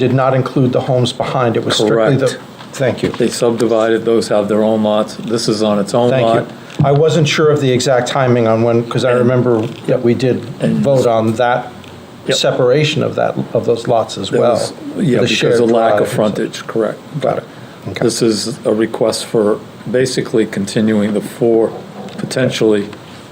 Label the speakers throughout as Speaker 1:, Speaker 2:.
Speaker 1: did not include the homes behind. It was strictly the,
Speaker 2: Correct.
Speaker 1: thank you.
Speaker 2: They subdivided, those have their own lots, this is on its own lot.
Speaker 1: Thank you. I wasn't sure of the exact timing on when, because I remember that we did vote on that
Speaker 2: Yep.
Speaker 1: separation of that, of those lots as
Speaker 2: That
Speaker 1: well.
Speaker 2: was- Yeah,
Speaker 1: the
Speaker 2: because
Speaker 1: shared
Speaker 2: of lack of
Speaker 1: drive and so-
Speaker 2: frontage, correct.
Speaker 1: Got it. Okay.
Speaker 2: This is a request for basically continuing the four, potentially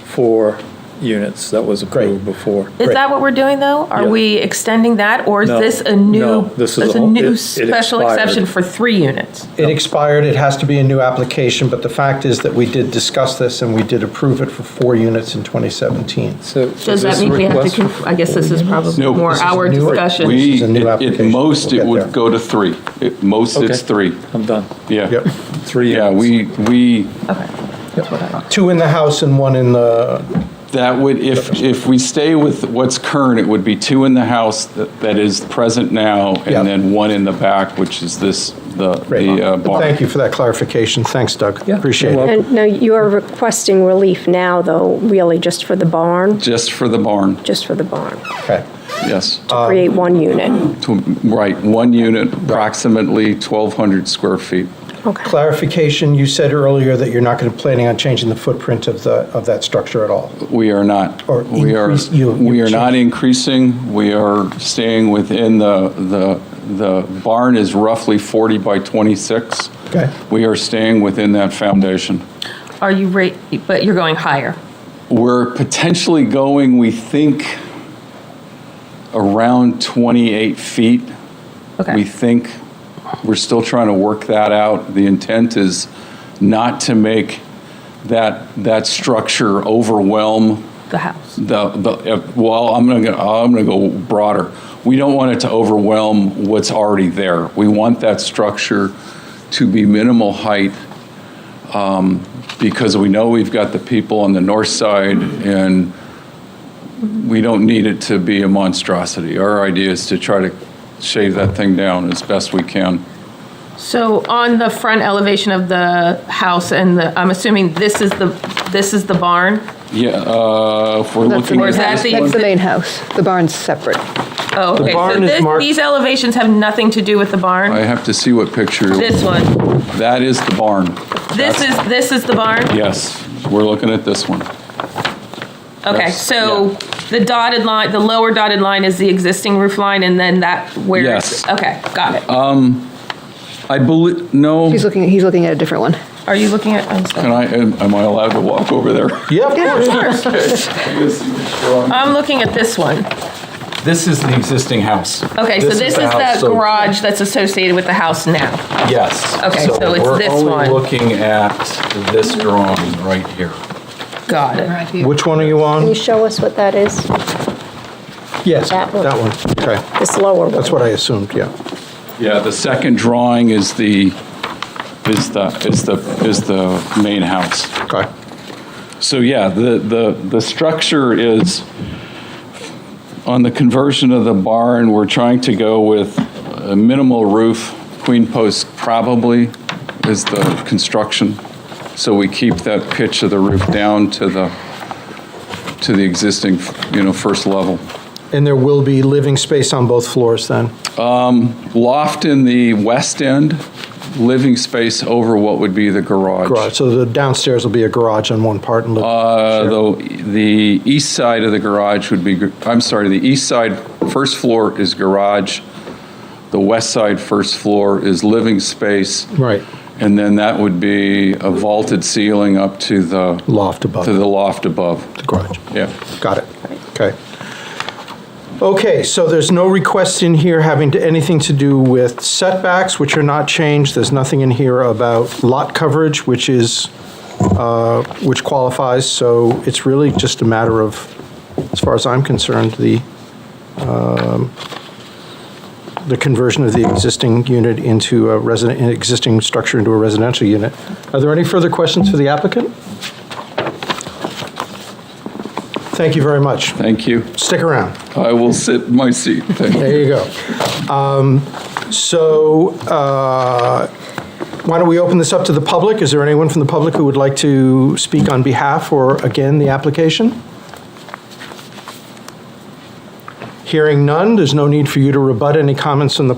Speaker 2: four units that was approved before.
Speaker 3: Is
Speaker 1: Great.
Speaker 3: that what we're doing, though? Are
Speaker 2: Yeah.
Speaker 3: we extending that, or is
Speaker 2: No,
Speaker 3: this a new?
Speaker 2: no, this is a whole- it-
Speaker 3: new
Speaker 2: it
Speaker 3: special
Speaker 2: expired.
Speaker 3: exception for three units?
Speaker 1: It expired, it has to be a new application, but the fact is that we did discuss this and we did approve it for four units in 2017.
Speaker 2: So is
Speaker 3: Does that
Speaker 2: this a
Speaker 3: mean we have
Speaker 2: request
Speaker 3: to,
Speaker 2: for
Speaker 3: conf- I guess this is probably
Speaker 4: No,
Speaker 3: more
Speaker 4: this is
Speaker 3: our
Speaker 1: newer.
Speaker 3: discussion.
Speaker 1: This
Speaker 4: We,
Speaker 1: is a new
Speaker 4: at- at
Speaker 1: application.
Speaker 4: most,
Speaker 1: We'll
Speaker 4: it
Speaker 1: get there.
Speaker 4: would go to three. At most, it's
Speaker 2: Okay.
Speaker 4: three.
Speaker 2: I'm done.
Speaker 4: Yeah.
Speaker 1: Yep.
Speaker 2: Three
Speaker 4: Yeah,
Speaker 2: units.
Speaker 4: we, we,
Speaker 3: Okay, that's what I,
Speaker 1: Two in the house and one in the,
Speaker 4: that would, if, if we stay with what's current, it would be two in the house that that is present now,
Speaker 1: Yeah.
Speaker 4: and then one in the back, which is this, the,
Speaker 1: Right.
Speaker 4: the uh, barn.
Speaker 1: thank you for that clarification. Thanks, Doug.
Speaker 2: Yeah,
Speaker 1: Appreciate
Speaker 2: you're
Speaker 1: it.
Speaker 5: And now you're requesting relief now, though, really just for the barn,
Speaker 4: Just for the barn,
Speaker 5: just for the barn,
Speaker 1: Okay.
Speaker 4: yes.
Speaker 1: Uh,
Speaker 5: to create one unit.
Speaker 4: To- Right, one unit, approximately 1,200 square feet.
Speaker 5: Okay.
Speaker 1: Clarification, you said earlier that you're not going to, planning on changing the footprint of the, of that structure at all.
Speaker 4: We are not.
Speaker 1: Or
Speaker 4: We are,
Speaker 1: increase- you-
Speaker 4: we
Speaker 1: you
Speaker 4: are not
Speaker 1: change-
Speaker 4: increasing. We are staying within the, the, the barn is roughly 40 by 26.
Speaker 1: Okay.
Speaker 4: We are staying within that foundation.
Speaker 3: are you rate, but you're going higher?
Speaker 4: We're potentially going, we think, around 28 feet. We
Speaker 3: Okay,
Speaker 4: think, we're still trying to work that out. The intent is not to make that, that structure overwhelm
Speaker 3: the house.
Speaker 4: the, the, uh, well, I'm going to, I'm going to go broader. We don't want it to overwhelm what's already there. We want that structure to be minimal height um, because we know we've got the people on the north side and we don't need it to be a monstrosity. Our idea is to try to shave that thing down as best we can.
Speaker 3: So on the front elevation of the house and the, I'm assuming this is the, this is the barn?
Speaker 4: Yeah, uh, if we're
Speaker 6: That's the
Speaker 4: looking
Speaker 3: Or
Speaker 4: at
Speaker 3: is that
Speaker 6: main-
Speaker 3: the-
Speaker 6: that's the main house. The barn's separate.
Speaker 3: Oh, okay, so
Speaker 1: barn is
Speaker 3: this-
Speaker 1: marked-
Speaker 3: these elevations have nothing to do with the
Speaker 4: I
Speaker 3: barn?
Speaker 4: have to see what picture.
Speaker 3: This one,
Speaker 4: That is the barn.
Speaker 3: this is, this is the barn?
Speaker 4: Yes, we're looking at this one.
Speaker 3: Okay,
Speaker 4: Yes,
Speaker 3: so the dotted line, the lower dotted line is the existing roof line, and then that where? it's-
Speaker 4: Yes.
Speaker 3: Okay, got it.
Speaker 1: Uh,
Speaker 4: I believe, no,
Speaker 6: He's looking, he's looking at a different one.
Speaker 3: Are you looking at, I'm sorry.
Speaker 4: can I, am am I allowed to walk over there?
Speaker 1: Yeah, of course.
Speaker 3: I'm looking at this one.
Speaker 4: This is the existing house.
Speaker 3: Okay, so
Speaker 1: This is
Speaker 3: this is
Speaker 1: the house,
Speaker 3: the
Speaker 4: so-
Speaker 3: garage that's associated with the house now.
Speaker 4: Yes.
Speaker 3: Okay, so it's this one.
Speaker 4: We're only looking at this drawing right here.
Speaker 3: Got it.
Speaker 1: Which one are you
Speaker 5: Can you
Speaker 1: on?
Speaker 5: show us what that is?
Speaker 1: Yes, that
Speaker 5: That
Speaker 1: one.
Speaker 5: one.
Speaker 1: Okay,
Speaker 5: This lower one?
Speaker 1: that's what I assumed, yeah.
Speaker 4: Yeah, the second drawing is the, is the, is the, is the main house.
Speaker 1: Okay.
Speaker 4: So yeah, the, the, the structure is, on the conversion of the barn, we're trying to go with a minimal roof, queen post probably is the construction. So we keep that pitch of the roof down to the, to the existing, you know, first level.
Speaker 1: And there will be living space on both floors then?
Speaker 4: Loft in the west end, living space over what would be the garage.
Speaker 1: Garage, so the downstairs will be a garage on one part and living.
Speaker 4: Uh,
Speaker 1: Sure.
Speaker 4: Though, the east side of the garage would be, gr- I'm sorry, the east side, first floor is garage. The west side, first floor is living space.
Speaker 1: Right.
Speaker 4: And then that would be a vaulted ceiling up to the.
Speaker 1: Loft above.
Speaker 4: To the loft above,
Speaker 1: The garage.
Speaker 4: yeah.
Speaker 1: Got it. Okay. Okay, so there's no request in here having to- anything to do with setbacks, which are not changed. There's nothing in here about lot coverage, which is, uh, which qualifies. So it's really just a matter of, as far as I'm concerned, the, um, the conversion of the existing unit into a resident, an existing structure into a residential unit. Are there any further questions for the applicant? Thank you very much.
Speaker 4: Thank you.
Speaker 1: Stick around.
Speaker 4: I will sit in my seat, thank you.
Speaker 1: There you go. Um, So uh, why don't we open this up to the public? Is there anyone from the public who would like to speak on behalf or again the application? Hearing none, there's no need for you to rebut any comments from the